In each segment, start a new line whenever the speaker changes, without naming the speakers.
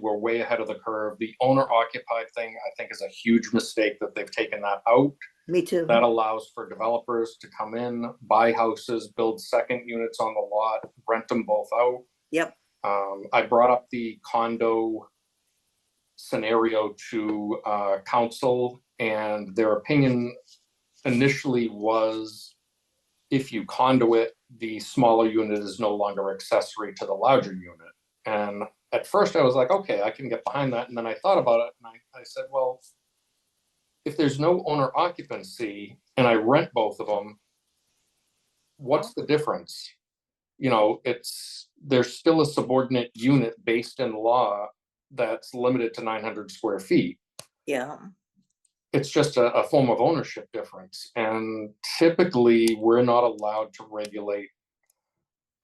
We're way ahead of the curve. The owner occupied thing, I think, is a huge mistake that they've taken that out.
Me too.
That allows for developers to come in, buy houses, build second units on the lot, rent them both out.
Yep.
Um, I brought up the condo scenario to, uh, council and their opinion initially was if you condo it, the smaller unit is no longer accessory to the larger unit. And at first I was like, okay, I can get behind that. And then I thought about it and I, I said, well, if there's no owner occupancy and I rent both of them, what's the difference? You know, it's, there's still a subordinate unit based in law that's limited to nine hundred square feet.
Yeah.
It's just a, a form of ownership difference, and typically, we're not allowed to regulate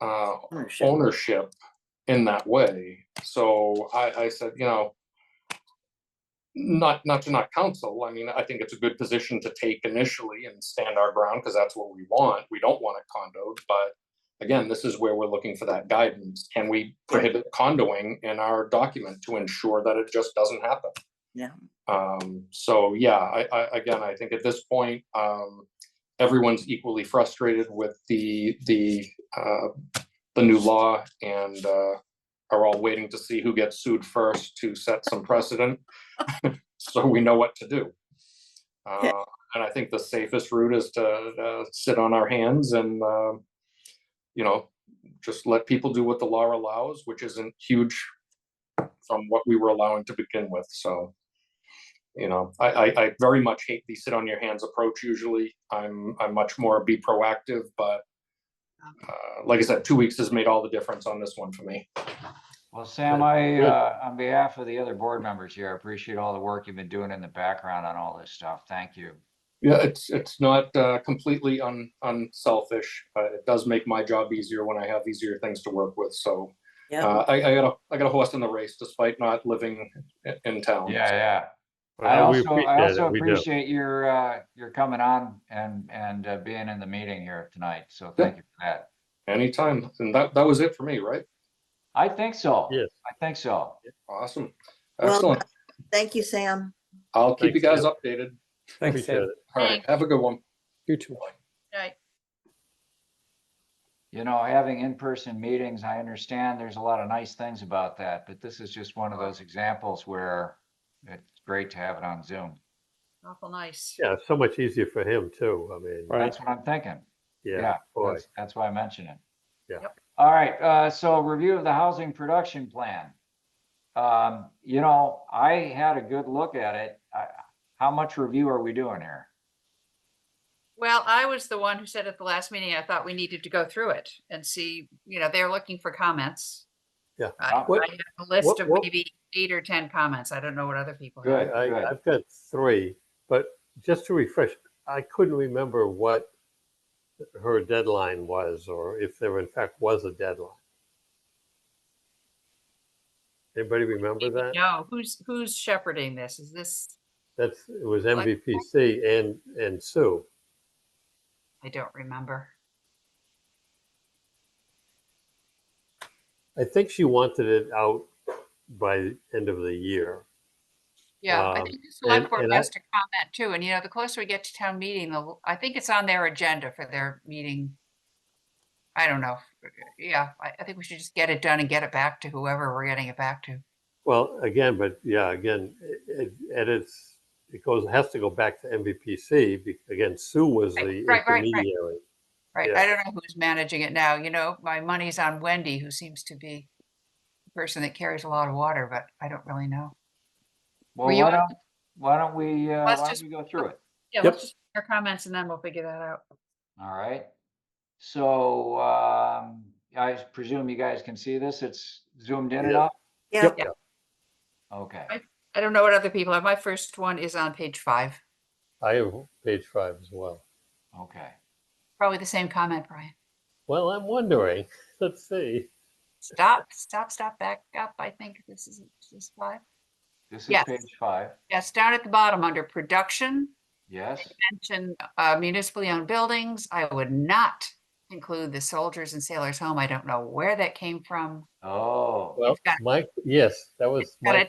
uh,
ownership.
ownership in that way. So I, I said, you know, not, not to not counsel, I mean, I think it's a good position to take initially and stand our ground, because that's what we want. We don't want it condoed, but again, this is where we're looking for that guidance. Can we prohibit condoing in our document to ensure that it just doesn't happen?
Yeah.
Um, so yeah, I, I, again, I think at this point, um, everyone's equally frustrated with the, the, uh, the new law and uh, are all waiting to see who gets sued first to set some precedent. So we know what to do.
Okay.
Uh, And I think the safest route is to uh, sit on our hands and, um, you know, just let people do what the law allows, which isn't huge from what we were allowing to begin with, so. You know, I, I, I very much hate the sit on your hands approach usually. I'm, I'm much more be proactive, but uh, like I said, two weeks has made all the difference on this one for me.
Well, Sam, I,
Good.
uh, on behalf of the other board members here, I appreciate all the work you've been doing in the background on all this stuff. Thank you.
Yeah, it's, it's not uh, completely un, unselfish, but it does make my job easier when I have easier things to work with, so.
Yeah.
Uh, I, I got a, I got a horse in the race despite not living i- in town.
Yeah, yeah. I
Well, we
also, I also
appreciate it. We do.
appreciate your, uh, your coming on and, and uh, being in the meeting here tonight. So
Yeah.
thank you for that.
Anytime, and that, that was it for me, right?
I think so.
Yes.
I think so.
Awesome,
Well,
excellent,
Thank you, Sam.
I'll keep you
Thanks,
guys updated,
Thanks,
Appreciate
Sam.
it.
all right, have a good one.
You too.
Right.
You know, having in-person meetings, I understand there's a lot of nice things about that, but this is just one of those examples where it's great to have it on Zoom.
Awful nice.
Yeah, so much easier for him too. I mean,
Right.
That's what I'm thinking.
yeah, boy.
That's, that's why I mentioned it.
Yeah.
Yep.
All right, uh, so review of the housing production plan. Um, you know, I had a good look at it. I, how much review are we doing here?
Well, I was the one who said at the last meeting, I thought we needed to go through it and see, you know, they're looking for comments.
Yeah.
I
Uh,
I
what-
have a list
what-
of
what-
maybe eight or 10 comments. I don't know what other people
I,
have.
Good, good.
I, I've got three, but just to refresh, I couldn't remember what her deadline was, or if there in fact was a deadline. Anybody remember that?
No, who's, who's shepherding this? Is this,
That's, it was MVPC and, and Sue.
I don't remember.
I think she wanted it out by the end of the year.
Yeah, I
Um,
think the select
and-
board
and I-
has to comment too. And you know, the closer we get to town meeting, the, l- I think it's on their agenda for their meeting. I don't know. Yeah, I, I think we should just get it done and get it back to whoever we're getting it back to.
Well, again, but yeah, again, it, it it's, it goes, has to go back to MVPC. be- Again, Sue was
Right,
the
right, right, right.
intermediary.
Right,
Yeah.
I don't know who's managing it now, you know, my money's on Wendy, who seems to be the person that carries a lot of water, but I don't really know.
Well,
Were you
why
on-
don't, why don't we, uh, why
Let's
don't
just-
we go through it?
Yeah,
Yep.
let's just hear comments and then we'll figure that out.
All right. So, um, I presume you guys can see this. It's zoomed in
Yeah.
enough?
Yeah.
Okay.
I don't know what other people have. My first one is on page five,
I have page five as well.
Okay.
probably the same comment, Brian.
Well, I'm wondering, let's see.
Stop, stop, stop, back up. I think this is, is this five.
This is
Yes.
page five.
Yes, down at the bottom under production,
Yes.
mention uh, municipally owned buildings. I would not include the soldiers and sailors home. I don't know where that came from.
Oh.
Well,
got-
Mike, yes, that was.
got
Mike.
a